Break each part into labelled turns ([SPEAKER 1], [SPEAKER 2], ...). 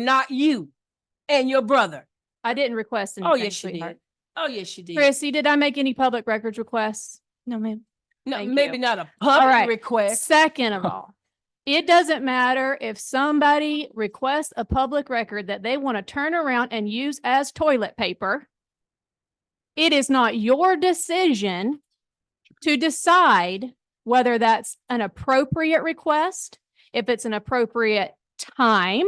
[SPEAKER 1] not you and your brother.
[SPEAKER 2] I didn't request anything.
[SPEAKER 1] Oh, yes, you
[SPEAKER 2] sweetheart.
[SPEAKER 1] did. Oh, yes, you did.
[SPEAKER 2] Chrissy, did I make any public records requests? No, ma'am.
[SPEAKER 1] No,
[SPEAKER 2] thank
[SPEAKER 1] maybe
[SPEAKER 2] you.
[SPEAKER 1] not a
[SPEAKER 2] right.
[SPEAKER 1] public request.
[SPEAKER 2] Second of all, it doesn't matter if somebody requests a public record that they want to turn around and use as toilet paper. It is not your decision to decide whether that's an appropriate request, if it's an appropriate time,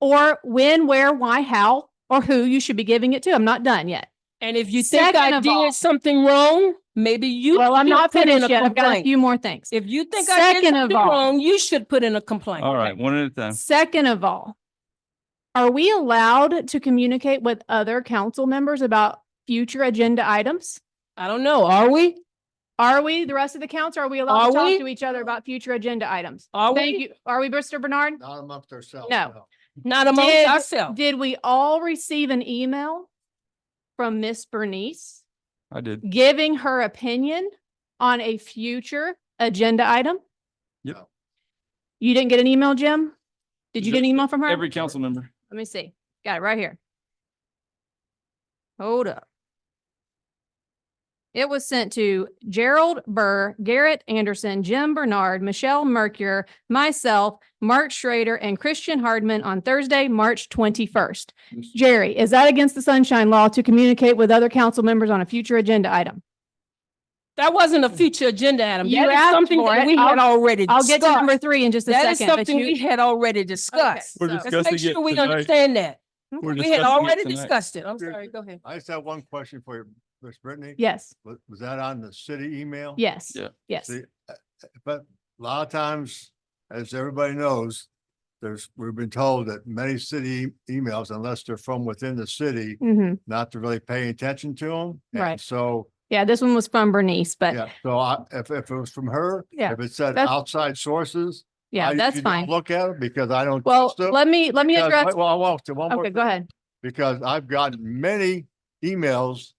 [SPEAKER 2] or when, where, why, how, or who you should be giving it to. I'm not done yet.
[SPEAKER 1] And if you think
[SPEAKER 2] Second
[SPEAKER 1] I
[SPEAKER 2] of all-
[SPEAKER 1] did something wrong, maybe you.
[SPEAKER 2] Well, I'm
[SPEAKER 1] should
[SPEAKER 2] not
[SPEAKER 1] put in
[SPEAKER 2] finished
[SPEAKER 1] a
[SPEAKER 2] yet. I've got a
[SPEAKER 1] complaint.
[SPEAKER 2] few more things.
[SPEAKER 1] If you think I did
[SPEAKER 2] Second of
[SPEAKER 1] something
[SPEAKER 2] all-
[SPEAKER 1] wrong, you should put in a complaint.
[SPEAKER 3] All right, one at a time.
[SPEAKER 2] Second of all, are we allowed to communicate with other council members about future agenda items?
[SPEAKER 1] I don't know. Are we?
[SPEAKER 2] Are we, the rest of the council, are we allowed
[SPEAKER 1] Are
[SPEAKER 2] to talk
[SPEAKER 1] we?
[SPEAKER 2] to each other about future agenda items?
[SPEAKER 1] Are
[SPEAKER 2] Thank
[SPEAKER 1] we?
[SPEAKER 2] you. Are we, Mr. Bernard?
[SPEAKER 4] Not amongst ourselves.
[SPEAKER 2] No.
[SPEAKER 1] Not amongst
[SPEAKER 2] Did-
[SPEAKER 1] ourselves.
[SPEAKER 2] Did we all receive an email from Miss Bernice
[SPEAKER 3] I did.
[SPEAKER 2] giving her opinion on a future agenda item?
[SPEAKER 3] Yep.
[SPEAKER 4] No.
[SPEAKER 2] You didn't get an email, Jim? Did you get an
[SPEAKER 3] Ju-
[SPEAKER 2] email from her?
[SPEAKER 3] Every council member.
[SPEAKER 2] Let me see. Got it right here. Hold up. It was sent to Gerald Burr, Garrett Anderson, Jim Bernard, Michelle Mercure, myself, Mark Schrader, and Christian Hardman on Thursday, March twenty-first.
[SPEAKER 4] Yes.
[SPEAKER 2] Jerry, is that against the sunshine law to communicate with other council members on a future agenda item?
[SPEAKER 1] That wasn't a future agenda, Adam.
[SPEAKER 2] You
[SPEAKER 1] That is
[SPEAKER 2] asked
[SPEAKER 1] something
[SPEAKER 2] for
[SPEAKER 1] that
[SPEAKER 2] it.
[SPEAKER 1] we had already
[SPEAKER 2] I'll get to number
[SPEAKER 1] discussed.
[SPEAKER 2] three in just a
[SPEAKER 1] That is
[SPEAKER 2] second. but
[SPEAKER 1] something
[SPEAKER 2] you-
[SPEAKER 1] we had already discussed.
[SPEAKER 3] We're
[SPEAKER 2] so-
[SPEAKER 3] discussing
[SPEAKER 1] Let's make
[SPEAKER 3] it
[SPEAKER 1] sure we
[SPEAKER 3] tonight.
[SPEAKER 1] understand that.
[SPEAKER 3] We're
[SPEAKER 1] We had
[SPEAKER 3] discussing it
[SPEAKER 1] already
[SPEAKER 3] tonight.
[SPEAKER 1] discussed it. I'm sorry, go ahead.
[SPEAKER 4] I just have one question for you, Miss Brittany.
[SPEAKER 2] Yes,
[SPEAKER 4] Was, was that on the city email?
[SPEAKER 2] yes,
[SPEAKER 3] Yeah.
[SPEAKER 2] yes.
[SPEAKER 4] See, uh, uh, But a lot of times, as everybody knows, there's, we've been told that many city e-, emails, unless they're from within the city,
[SPEAKER 2] Mhm.
[SPEAKER 4] not to really pay attention to them.
[SPEAKER 2] Right.
[SPEAKER 4] So,
[SPEAKER 2] Yeah, this one was from Bernice, but
[SPEAKER 4] yeah, so I, if, if it was from her,
[SPEAKER 2] Yeah,
[SPEAKER 4] if it said
[SPEAKER 2] that's-
[SPEAKER 4] outside sources. I
[SPEAKER 2] yeah, that's
[SPEAKER 4] usually don't
[SPEAKER 2] fine.
[SPEAKER 4] Look at it because I don't.
[SPEAKER 2] Well,
[SPEAKER 4] trust 'em,
[SPEAKER 2] let me, let me
[SPEAKER 4] because-
[SPEAKER 2] address,
[SPEAKER 4] Well, I walked to one more.
[SPEAKER 2] okay, go ahead.
[SPEAKER 4] because I've gotten many emails,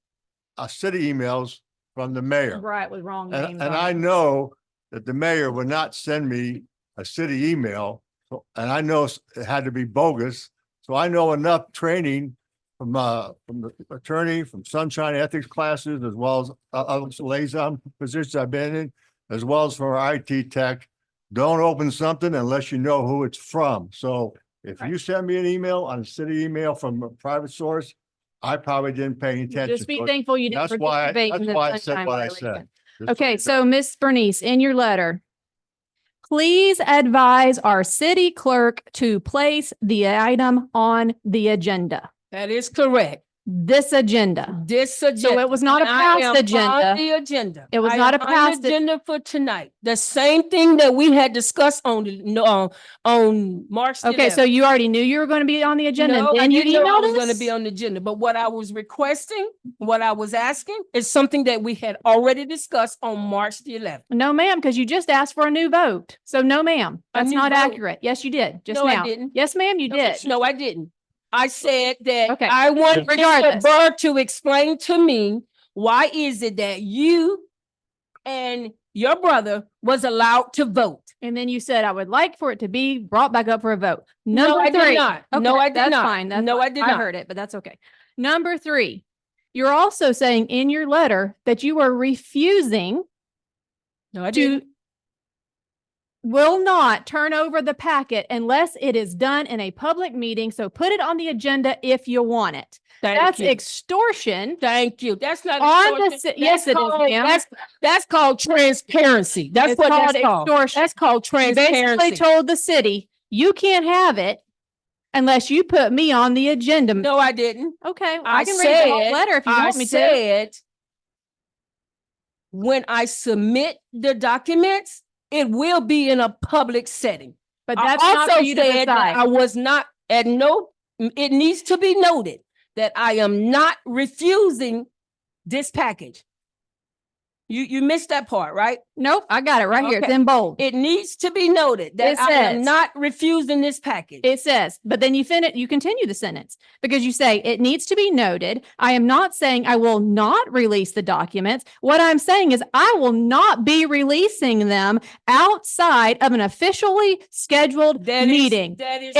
[SPEAKER 4] uh, city emails from the mayor.
[SPEAKER 2] Right, with wrong
[SPEAKER 4] And, and I know that the mayor would not send me a city email. so- And I know s- it had to be bogus. So I know enough training from, uh, from the attorney, from sunshine ethics classes, as well as o- other liaison positions I've been in, as well as for our IT tech. Don't open something unless you know who it's from. So if you send me an email on a city email from a private source, I probably didn't pay any attention.
[SPEAKER 2] Just be
[SPEAKER 4] So
[SPEAKER 2] thankful you didn't
[SPEAKER 4] That's why I-
[SPEAKER 2] participate in
[SPEAKER 4] that's
[SPEAKER 2] the
[SPEAKER 4] why I said
[SPEAKER 2] sunshine
[SPEAKER 4] what I said.
[SPEAKER 2] violation.
[SPEAKER 4] just-
[SPEAKER 2] Okay, so Miss Bernice, in your letter, please advise our city clerk to place the item on the agenda,
[SPEAKER 1] That is correct.
[SPEAKER 2] this agenda.
[SPEAKER 1] This agenda.
[SPEAKER 2] So it was not a
[SPEAKER 1] And I am
[SPEAKER 2] past
[SPEAKER 1] on
[SPEAKER 2] agenda.
[SPEAKER 1] The agenda.
[SPEAKER 2] It was
[SPEAKER 1] I
[SPEAKER 2] not
[SPEAKER 1] am
[SPEAKER 2] a
[SPEAKER 1] on the
[SPEAKER 2] past a-
[SPEAKER 1] Agenda for tonight. The same thing that we had discussed on, the- no, on, on March. the
[SPEAKER 2] Okay, so
[SPEAKER 1] 11th.
[SPEAKER 2] you already knew you were going to be on the agenda
[SPEAKER 1] No,
[SPEAKER 2] and
[SPEAKER 1] I
[SPEAKER 2] then you
[SPEAKER 1] didn't know I was
[SPEAKER 2] emailed
[SPEAKER 1] Going to
[SPEAKER 2] us?
[SPEAKER 1] be on the agenda, but what I was requesting, what I was asking is something that we had already discussed on March the eleventh.
[SPEAKER 2] No, ma'am, because you just asked for a new vote. So no, ma'am,
[SPEAKER 1] A
[SPEAKER 2] that's
[SPEAKER 1] new
[SPEAKER 2] not
[SPEAKER 1] vote.
[SPEAKER 2] accurate. Yes, you did, just
[SPEAKER 1] No, I
[SPEAKER 2] now.
[SPEAKER 1] didn't.
[SPEAKER 2] Yes, ma'am, you did.
[SPEAKER 1] No, I didn't. I said that
[SPEAKER 2] Okay.
[SPEAKER 1] I want Mr.
[SPEAKER 2] Regardless.
[SPEAKER 1] Burr to explain to me, why is it that you and your brother was allowed to vote?
[SPEAKER 2] And then you said, I would like for it to be brought back up for a vote.
[SPEAKER 1] No, I
[SPEAKER 2] Number
[SPEAKER 1] did
[SPEAKER 2] three.
[SPEAKER 1] not. No,
[SPEAKER 2] Okay,
[SPEAKER 1] I did
[SPEAKER 2] that's
[SPEAKER 1] not.
[SPEAKER 2] fine. That's
[SPEAKER 1] No,
[SPEAKER 2] fine.
[SPEAKER 1] I did
[SPEAKER 2] I
[SPEAKER 1] not.
[SPEAKER 2] heard it, but that's okay. Number three, you're also saying in your letter that you are refusing
[SPEAKER 1] No, I
[SPEAKER 2] to will not turn over the packet unless it is done in a public meeting. So put it on the agenda if you want it.
[SPEAKER 1] Thank
[SPEAKER 2] That's
[SPEAKER 1] you.
[SPEAKER 2] extortion.
[SPEAKER 1] Thank you. That's not.
[SPEAKER 2] On the
[SPEAKER 1] extortion.
[SPEAKER 2] si- yes,
[SPEAKER 1] That's
[SPEAKER 2] it is,
[SPEAKER 1] called-
[SPEAKER 2] ma'am.
[SPEAKER 1] That's, that's called transparency. That's
[SPEAKER 2] It's
[SPEAKER 1] what
[SPEAKER 2] called
[SPEAKER 1] that's called.
[SPEAKER 2] extortion.
[SPEAKER 1] That's called
[SPEAKER 2] You basically
[SPEAKER 1] transparency.
[SPEAKER 2] told the city, you can't have it unless you put me on the agenda.
[SPEAKER 1] No, I didn't.
[SPEAKER 2] Okay, well,
[SPEAKER 1] I
[SPEAKER 2] I can read the whole
[SPEAKER 1] said-
[SPEAKER 2] letter if you
[SPEAKER 1] I
[SPEAKER 2] want me to.
[SPEAKER 1] said when I submit the documents, it will be in a public setting.
[SPEAKER 2] But
[SPEAKER 1] I
[SPEAKER 2] that's not for
[SPEAKER 1] also
[SPEAKER 2] you to
[SPEAKER 1] said that I
[SPEAKER 2] decide.
[SPEAKER 1] was not, at no, it needs to be noted that I am not refusing this package. You, you missed that part, right?
[SPEAKER 2] Nope, I got it right here. It's
[SPEAKER 1] Okay.
[SPEAKER 2] in bold.
[SPEAKER 1] It needs to be noted
[SPEAKER 2] It
[SPEAKER 1] that I am
[SPEAKER 2] says-
[SPEAKER 1] not refusing this package.
[SPEAKER 2] It says, but then you finish, you continue the sentence because you say, it needs to be noted. I am not saying I will not release the documents. What I'm saying is I will not be releasing them outside of an officially scheduled
[SPEAKER 1] That is-
[SPEAKER 2] meeting.
[SPEAKER 1] That is